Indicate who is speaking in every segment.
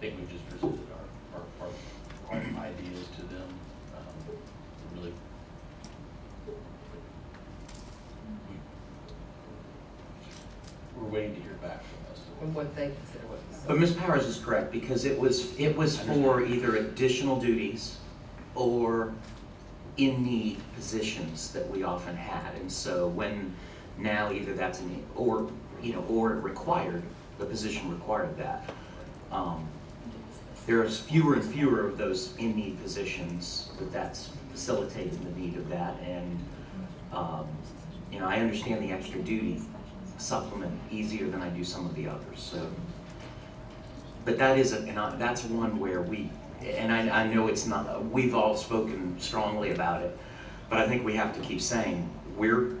Speaker 1: think we've just presented our, our, our our ideas to them, um, really. we- We're waiting to hear back from us.
Speaker 2: and what they consider what facility.
Speaker 3: But Ms. Powers is correct, because it was, it was for either additional duties or in-need positions that we often had. And so when now either that's an, or, you know, or it required, the position required that. um, There's fewer and fewer of those in-need positions, that that's facilitating the need of that. And, um, you know, I understand the extra duty supplement easier than I do some of the others, so. But that is, a- and I- that's one where we, and I, I know it's not, we've all spoken strongly about it, but I think we have to keep saying, we're,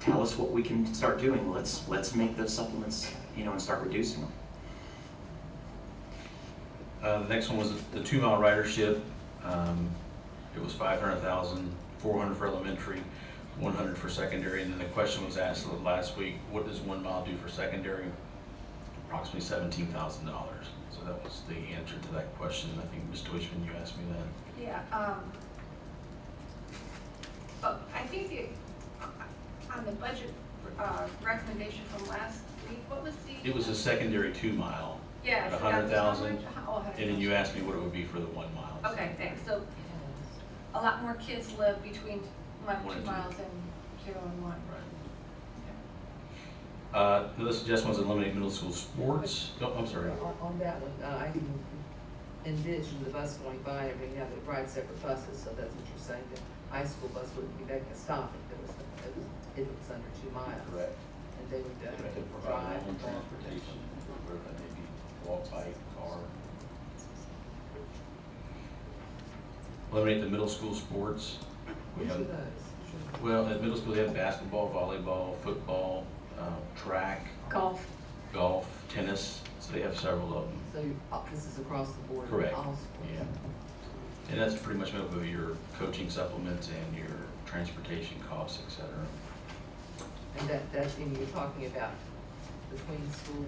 Speaker 3: tell us what we can start doing, let's, let's make those supplements, you know, and start reducing them.
Speaker 4: Uh, the next one was the two mile ridership. Um, it was five hundred thousand, four hundred for elementary, one hundred for secondary, and then the question was asked last week, what does one mile do for secondary? Approximately seventeen thousand dollars. So that was the answer to that question. I think, Ms. Deutschman, you asked me that.
Speaker 5: Yeah, um, but I think the, on the budget, uh, recommendation from last week, what was the?
Speaker 4: It was a secondary two mile,
Speaker 5: Yeah.
Speaker 4: a
Speaker 5: so that
Speaker 4: hundred
Speaker 5: was how
Speaker 4: thousand,
Speaker 5: much? How- oh, hundred
Speaker 4: and then you
Speaker 5: thousand.
Speaker 4: asked me what it would be for the one mile. so-
Speaker 5: Okay, thanks, so a lot more kids live between mile,
Speaker 4: One
Speaker 5: two
Speaker 4: and two.
Speaker 5: miles and zero and one.
Speaker 4: Right. Uh, this suggestion was eliminate middle school sports. Oh, I'm sorry.
Speaker 2: On, on that one, uh, I can envision the bus going by and we have it ride separate buses, so that's what you're saying, the high school bus wouldn't be making a stop if it was, it was- if it was under two miles.
Speaker 1: Correct.
Speaker 2: And they would
Speaker 1: They
Speaker 2: have to
Speaker 1: could provide
Speaker 2: drive.
Speaker 1: their own transportation, whether that may be walk, bike, car.
Speaker 4: Eliminate the middle school sports. We
Speaker 2: Which
Speaker 4: have,
Speaker 2: of those?
Speaker 4: well, at middle school, they have basketball, volleyball, football, um, track,
Speaker 2: Golf,
Speaker 4: golf, tennis, so they have several of them.
Speaker 2: so you- uh, this is across the board. in
Speaker 4: Correct.
Speaker 2: All schools.
Speaker 4: Yeah. And that's pretty much made up of your coaching supplements and your transportation costs, et cetera.
Speaker 2: And that, that thing you're talking about between schools,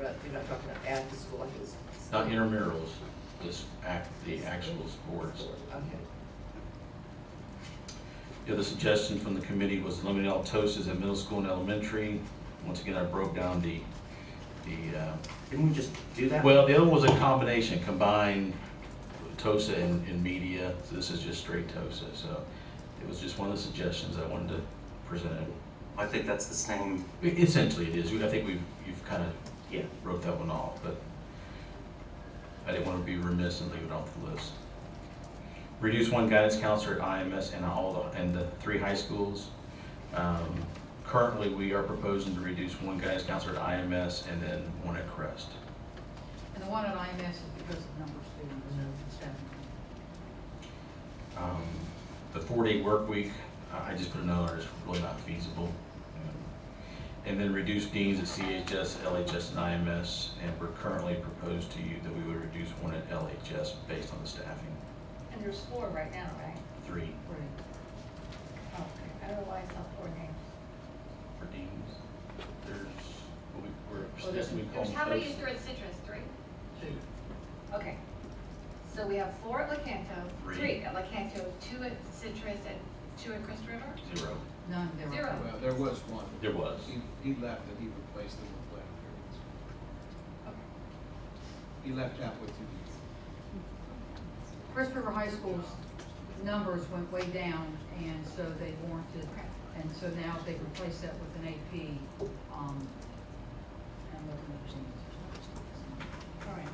Speaker 2: uh, rather- you're not talking about after school, like it's.
Speaker 4: Not intramurals, just act, the actual sports.
Speaker 2: Okay.
Speaker 4: The other suggestion from the committee was eliminate all TOSAs at middle school and elementary. Once again, I broke down the, the, uh,
Speaker 3: Didn't we just do that?
Speaker 4: Well, the other one was a combination, combined TOSA and, and media, so this is just straight TOSA, so it was just one of the suggestions I wanted to present.
Speaker 3: I think that's the same,
Speaker 4: I- Essentially it is, We- I think we've, you've kind of
Speaker 3: yeah.
Speaker 4: wrote that one off, but I didn't want to be remiss and leave it off the list. Reduce one guidance counselor at IMS and all, the- and the three high schools. Um, Currently, we are proposing to reduce one guidance counselor at IMS and then one at Crest.
Speaker 6: And the one at IMS is because of number of students and staffing.
Speaker 4: Um, The four-day work week, I I just put another, it's really not feasible. And then reduce deans at CHS, LHS, and IMS, and we're currently proposed to you that we would reduce one at LHS based on the staffing,
Speaker 5: And there's four right now, right?
Speaker 4: three
Speaker 2: Right.
Speaker 5: Oh, Okay, I don't know why I saw four names.
Speaker 4: for deans.
Speaker 1: There's, we,
Speaker 2: Well,
Speaker 1: we're,
Speaker 2: there's-
Speaker 1: we call
Speaker 5: There's-
Speaker 1: them.
Speaker 5: How many is
Speaker 1: those-
Speaker 5: there at Citrus, three?
Speaker 2: Two.
Speaker 5: Okay, so we have four at Lakanto,
Speaker 4: Three.
Speaker 5: three at Lakanto, two at Citrus, and two at Crystal River?
Speaker 4: Zero.
Speaker 6: None, there were.
Speaker 5: Zero.
Speaker 7: Well, there was one.
Speaker 4: There was.
Speaker 7: He, he left and he replaced him with Black Perkins. He left out with two people.
Speaker 6: Crest River High School's numbers went way down, and so they warranted, and so now they replaced that with an AP, um, and looking at percentages.
Speaker 5: All right.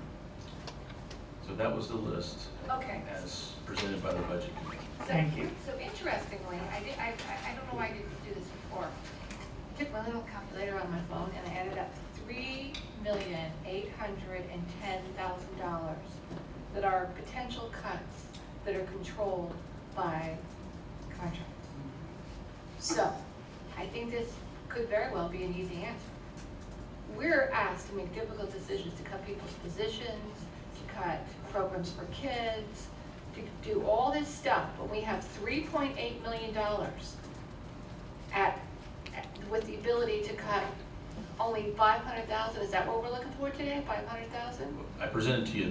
Speaker 4: So that was the list.
Speaker 5: Okay.
Speaker 4: As presented by the budget committee.
Speaker 5: So-
Speaker 3: Thank you.
Speaker 5: So interestingly, I did, I, I I don't know why I didn't do this before. I Took my little calculator on my phone and I added up three million, eight hundred and ten thousand dollars that are potential cuts that are controlled by contracts. So, I think this could very well be an easy answer. We're asked to make difficult decisions, to cut people's positions, to cut programs for kids, to do all this stuff, but we have three point eight million dollars at, at- with the ability to cut only five hundred thousand, is that what we're looking for today, five hundred thousand?
Speaker 4: I presented to you